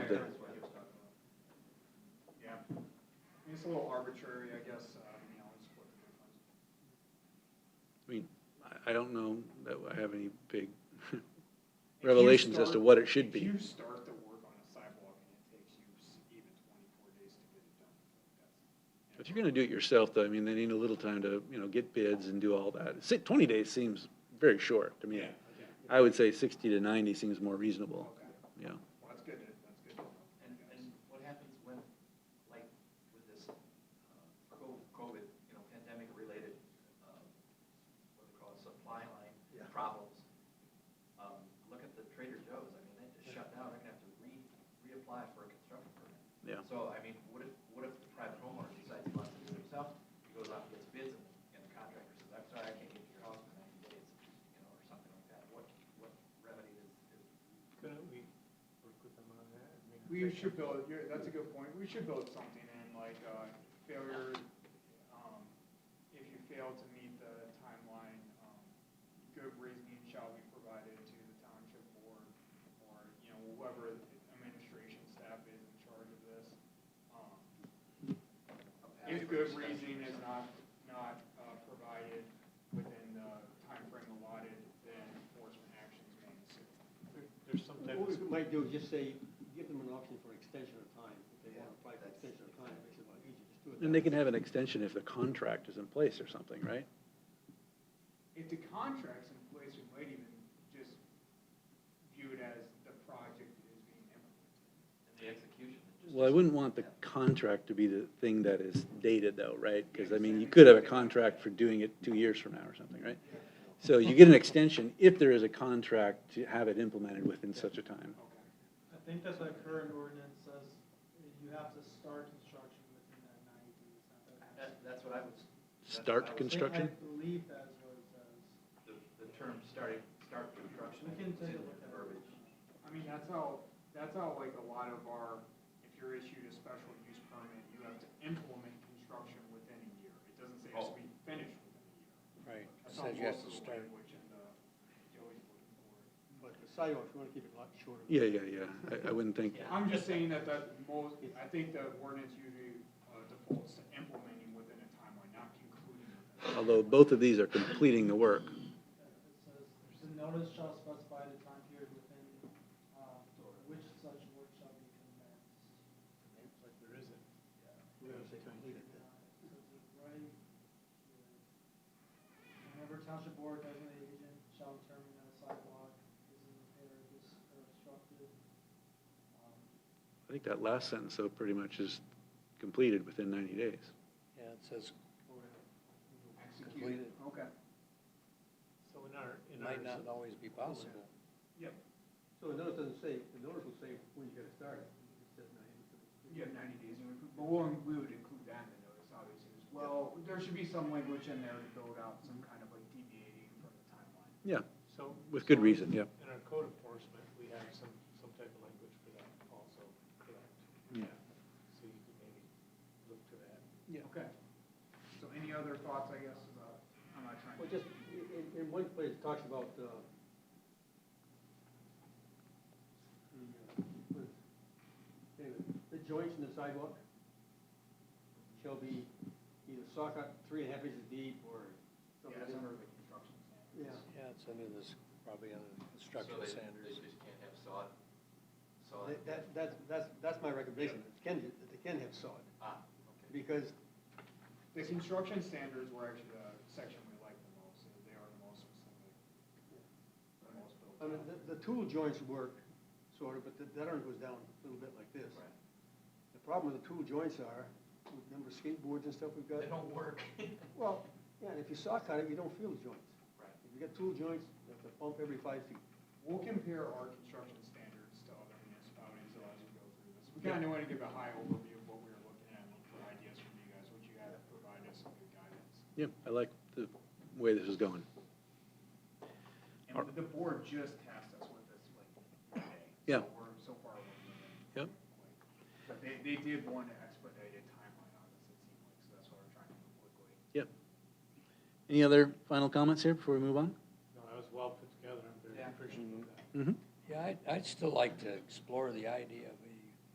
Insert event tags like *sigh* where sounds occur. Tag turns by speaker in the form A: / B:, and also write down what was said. A: the-
B: that's what he was talking about. Yeah, I mean, it's a little arbitrary, I guess, uh, you know, it's what the difference.
C: I mean, I, I don't know that I have any big *laughs* revelations as to what it should
B: If
C: be.
B: you start the work on a sidewalk and it takes you s- even twenty-four days to get it done,
C: If you're gonna do it yourself, though, I mean, they need a little time to, you know, get bids and do all that. Si- Twenty days seems very short to me. I would say sixty to ninety seems more reasonable, you know.
B: well, that's good, to- that's good. to know.
A: And, and what happens when, like, with this uh, co- COVID, you know, pandemic-related, um, what they call it, supply line
B: Yeah.
A: problems? Um, Look at the Trader Joe's, I mean, they just shut down, they're gonna have to re, reapply for a construction permit.
C: Yeah.
A: So, I mean, what if, what if the private homeowner decides he wants to do it himself, he goes out and gets bids, and and the contractor says, I'm sorry, I can't get to your house in ninety days, you know, or something like that, what, what remedy is, is
D: Couldn't we work with them on that? and make a
B: We
D: fix?
B: should build, you're, that's a good point, we should build something in, like, uh, failure, um, if you fail to meet the timeline, um, good reasoning shall be provided to the township board, or, you know, whoever administration staff is in charge of this. Um,
A: a path
B: If
A: for
B: good
A: discussion or
B: reasoning is
A: something?
B: not, not, uh, provided within the timeframe allotted, then enforcement actions may ensue.
D: There- There's some type
E: What we
D: of,
E: might do is just say, give them an option for extension of time, if they want to apply for
A: Yeah,
E: extension of time, it makes it a lot easier, just do it.
C: And they
E: that
C: can have an extension if the contract is in place or something, right?
B: if the contract's in place, we might even just view it as the project is being implemented.
A: And the execution. it just-
C: Well, I wouldn't want the contract to be the thing that is dated though, right? Because I mean, you could have a contract for doing it two years from now or something, right? So you get an extension if there is a contract to have it implemented within such a time.
B: Okay.
F: I think that's what current ordinance says, you have to start construction within that ninety days. not that it has
A: That, that's what I was. that's what
C: Start
A: I was-
F: to-
C: construction?
F: I believe that is what it says.
A: The, the term starting, start construction.
F: We can
A: is
F: take a
A: in
F: look at it.
A: verbiage.
B: I mean, that's how, that's how like a lot of our, if you're issued a special use permit, you have to implement construction within a year. It doesn't say it has to be finished within a year.
C: Right.
B: That's how
E: Oh. Says you have
B: most
E: to
B: of the
E: start.
B: language in the, Joey's looking for.
E: But the sidewalks, we want to keep it a lot shorter.
C: Yeah, yeah, yeah. I, I wouldn't think,
B: I'm just saying that that most, I think the ordinance usually uh, defaults to implementing within a timeline, not concluding within a
C: although both of these are completing the work.
F: It says, the notice shall specify the time period within, uh, which such work shall be commenced.
D: like there isn't.
E: We're going to say complete it. then.
F: Uh, it says the right, uh, Whenever township board designated agent shall determine that a sidewalk is in repair, dis or obstructed, um,
C: I think that last sentence though pretty much is completed within ninety days.
G: Yeah, it says
B: Executed, okay.
D: So in our, in
G: might not
D: ours,
G: always be possible.
B: Yep.
E: So the notice doesn't say, the notice will say when you got to start it, it says nine. it's gonna be-
B: Yeah, ninety days, and we- but we'll, we would include that in the notice, obviously, as well. There should be some language in there to build out some kind of like deviating from the timeline.
C: Yeah,
D: so.
C: with good
D: so
C: reason, yeah.
D: In our code enforcement, we have some, some type of language for that also, correct?
C: Yeah.
D: So you could maybe look to that.
B: Okay. So any other thoughts, I guess, about, I'm not trying to.
E: Well, just, i- in, in one place, it talks about, uh, the, uh, what is- anyway, the joints in the sidewalk shall be either socket three and a half inches deep or something.
B: Yeah, it's
E: different.
B: under the construction standards.
E: Yeah.
G: Yeah, it's under this, probably under construction
A: So they-
G: standards.
A: They just can't have sod, sod.
E: That- That, that's, that's, that's my recommendation, that can, that they can have sod,
A: Ah, okay.
E: because
B: The construction standards were actually the section we liked the most, and they are the most specific. The most built
E: I mean,
B: out.
E: the, the tool joints work, sort of, but the, that arm goes down a little bit like this.
A: Right.
E: The problem with the tool joints are, with number of skateboards and stuff we've got.
A: They don't work. *laughs*
E: Well, yeah, and if you saw cut it, you don't feel the joints.
A: Right.
E: If you got tool joints, you have to bump every five feet.
B: We'll compare our construction standards to other municipalities as we go through this. We kind of want to give a high overview of what we were looking at, look for ideas from you guys, what you had to provide us some good guidance.
C: Yeah, I like the way this is going.
B: And the board just tasked us with this like today.
C: Yeah.
B: So we're so far away from it.
C: Yep.
B: But they, they did want to expedite a timeline on this, it seemed like, so that's why we're trying to move quickly.
C: Yep. Any other final comments here before we move on?
D: No, that was well put together, I'm very
B: Yeah.
D: appreciative of that.
C: Mm-hmm.
G: Yeah, I'd, I'd still like to explore the idea of